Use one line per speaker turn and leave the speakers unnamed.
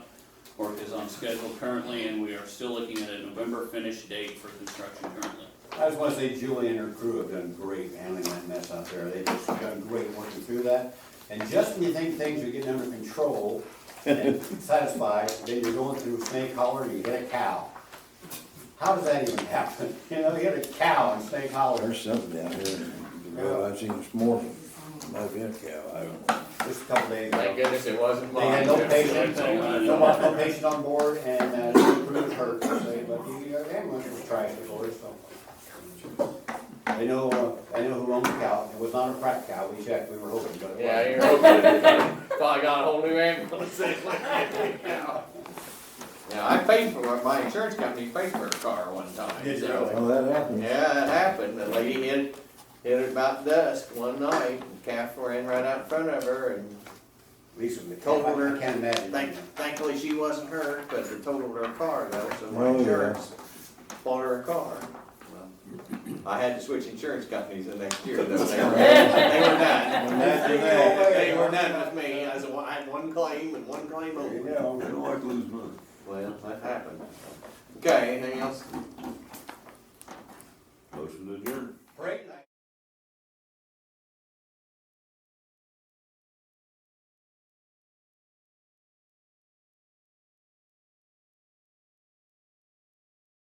Work is on schedule currently, and we are still looking at a November finish date for construction currently.
I just wanna say Julie and her crew have done great handling that mess out there. They've just done great working through that. And just when you think things are getting under control and satisfied, then you're going through snake holler and you hit a cow. How does that even happen? You know, you hit a cow in snake holler,
There's something down here, the road I've seen this morning, might be a cow, I don't know.
just a couple days ago.
Thank goodness it wasn't
They
mine.
had no patience,
Thank you.
no much no patience on board, and, uh, the crew was hurt, so they, but the uh, ambulance was trashed before, so. I know, uh, I know who owned the cow, it was not a crack cow, we checked, we were hoping, but it
Yeah,
wasn't.
you're hoping, probably got a whole new ambulance. Yeah, I paid for it, my insurance company paid for a car one time.
Did you
so-
really?
Well, that happened.
Yeah, that happened, the lady hit, hit it about dusk one night, and calf ran right out in front of her, and
Lisa, the cow,
Told her.
I can't imagine.
thank, thankfully she wasn't hurt, but it totaled her car though, so my
Oh, yeah.
insurance bought her a car. Well, I had to switch insurance companies the next year though, they were, they were done.
Well, that's the way.
They were done with me, I said, well, I had one claim and one claim
There you go.
only.
I don't like losing money.
Well, that happened. Okay, anything else?